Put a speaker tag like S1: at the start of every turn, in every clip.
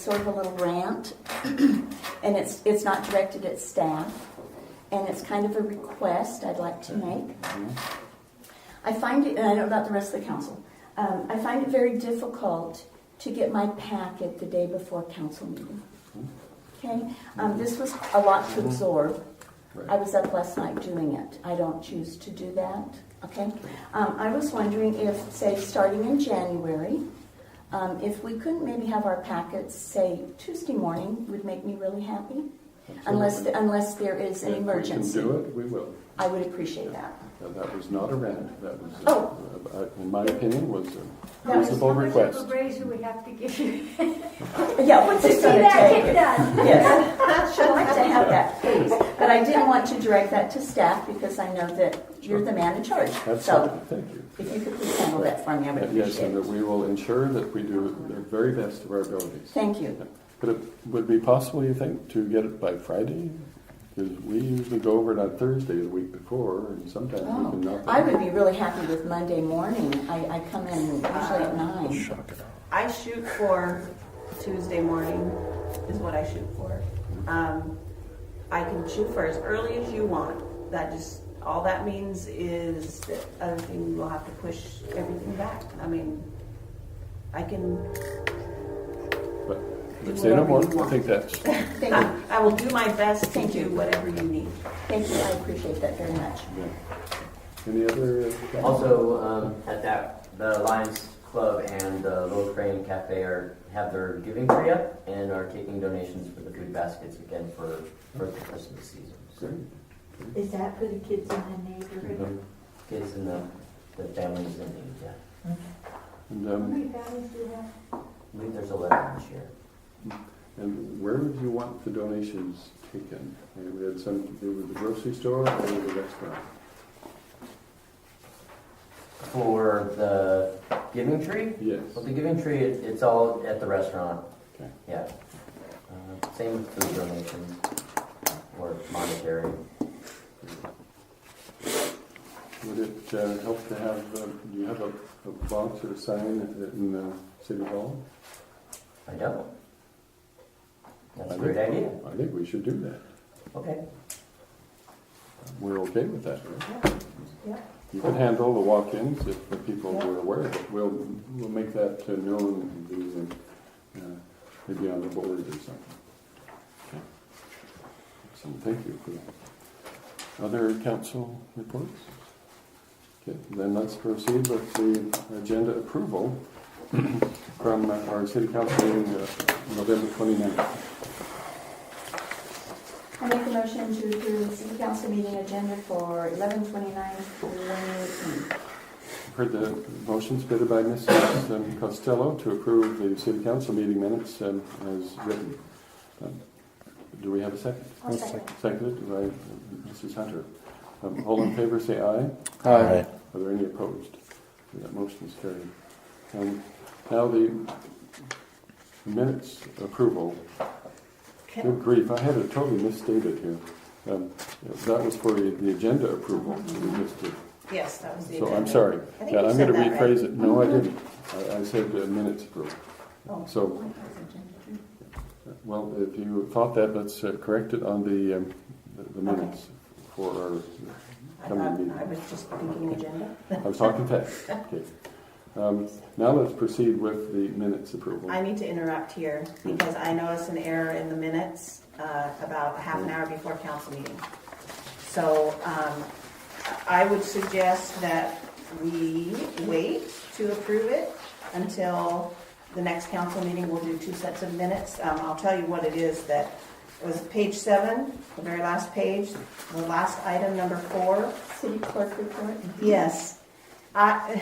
S1: sort of a little rant, and it's, it's not directed at staff, and it's kind of a request I'd like to make. I find it, and I don't know about the rest of the council, um, I find it very difficult to get my packet the day before council meeting. Okay, um, this was a lot to absorb. I was up last night doing it. I don't choose to do that, okay? Um, I was wondering if, say, starting in January, um, if we couldn't maybe have our packets, say, Tuesday morning would make me really happy. Unless, unless there is an
S2: If we
S1: emergency.
S2: can do it, we will.
S1: I would appreciate that.
S2: Uh, That was not a rant, that was,
S1: Oh.
S2: uh, uh, in my opinion, was a
S1: That was
S2: reasonable
S3: How much
S2: request.
S3: of a raise do we have to give you?
S1: Yeah, what's
S3: To
S1: it
S3: see
S1: gonna
S3: that
S1: take?
S3: get done?
S1: Yes, I'd like to have that, please. But I didn't want to direct that to staff because I know that you're the man in charge.
S2: That's
S1: So
S2: fine, thank you.
S1: if you could please handle that for me, I would
S2: Yes,
S1: appreciate
S2: and that
S1: it.
S2: we will ensure that we do the very best of our abilities.
S1: Thank you.
S2: But it would be possible, you think, to get it by Friday? Because we usually go over it on Thursday the week before, and sometimes we can
S1: Oh,
S2: knock it
S1: I
S2: out.
S1: would be really happy with Monday morning. I, I come in usually at nine.
S4: I shoot for Tuesday morning is what I shoot for. Um, I can shoot for as early as you want. That just, all that means is that other thing, we'll have to push everything back. I mean, I can,
S2: But but say no more,
S4: whatever you
S2: I think that's,
S1: Thank you,
S4: I I will do my best to
S1: Thank you.
S4: do whatever you need.
S1: thank you, I appreciate that very much.
S2: yeah. Any other? uh,
S5: Also, um, at that, the Lions Club and the Little Crane Cafe are, have their giving tree up and are taking donations for the food baskets again for, for the Christmas season.
S2: Great.
S6: Is that for the kids in the neighborhood?
S5: The mhm. Kids and the, the families in need, yeah.
S2: And,
S6: How
S2: um,
S6: many families do you have?
S5: I believe there's eleven this year.
S2: And where would you want the donations taken? Uh, We had some to do with the grocery store or the restaurant.
S5: For the giving tree,
S2: Yes.
S5: well, the giving tree, it- it's all at the restaurant,
S2: Okay.
S5: yeah. Uh, Same with food donations or monetary.
S2: Would it uh, help to have, uh, do you have a a box or a sign at- at- in the city hall?
S5: I don't. That's
S2: I
S5: a great
S2: think-
S5: idea.
S2: I think we should do that.
S5: Okay.
S2: We're okay with that, right?
S6: Yeah.
S2: You could handle the walk-ins if the people were aware of it. We'll, we'll make that uh, known and do, uh, maybe on the board or something. Okay. So thank you for that. Other council reports? Okay, then let's proceed with the agenda approval from our city council meeting uh, November 29th.
S1: I make a motion to approve the city council meeting agenda for eleven twenty-nine twenty eighteen.
S2: Heard the motion submitted by Mrs. um, Costello to approve the city council meeting minutes um, as written. Um, Do we have a second?
S6: I'll second.
S2: Seconded by uh, Mrs. Hunter. Um, All in favor, say aye.
S7: Aye.
S2: Are there any opposed? That motion is carried. Um, Now the minutes approval. Good grief, I had it totally misstated here. Um, That was for the the agenda approval. We missed it.
S4: Yes, that was the
S2: So
S4: agenda.
S2: I'm sorry.
S4: I think
S2: Yeah,
S4: you
S2: I'm
S4: said
S2: going to
S4: that, right? Mm-hmm.
S2: rephrase it. No, I didn't. I- I said uh, minutes approved.
S4: Oh.
S2: So, well, if you thought that, let's uh, correct it on the, um, the- the minutes for our,
S4: I thought, I was just thinking agenda.
S2: I was talking fast. Okay. Um, Now let's proceed with the minutes approval.
S4: I need to interrupt here because I noticed an error in the minutes uh, about half an hour before council meeting. So um, I would suggest that we wait to approve it until the next council meeting. We'll do two sets of minutes. Um, I'll tell you what it is that, it was page seven, the very last page, the last item, number four.
S1: City clerk report?
S4: Yes. I,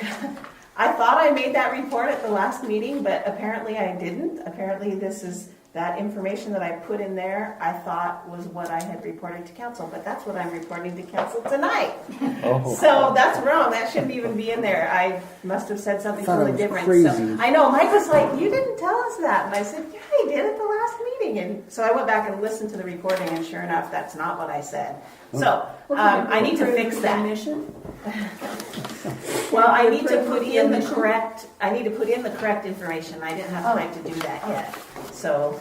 S4: I thought I made that report at the last meeting, but apparently I didn't. Apparently this is, that information that I put in there, I thought was what I had reported to council, but that's what I'm reporting to council tonight.
S2: Oh.
S4: So that's wrong, that shouldn't even be in there. I must have said something
S7: Thought it
S4: totally
S7: was
S4: different.
S7: crazy.
S4: So I know, Mike was like, you didn't tell us that. And I said, yeah, I did at the last meeting. And so I went back and listened to the recording and sure enough, that's not what I said. So, um, I need to fix that.
S1: Mission?
S4: Well, I need to
S1: Approve
S4: put
S1: the
S4: in the
S1: omission?
S4: correct, I need to put in the correct information, I didn't have time to do that yet. So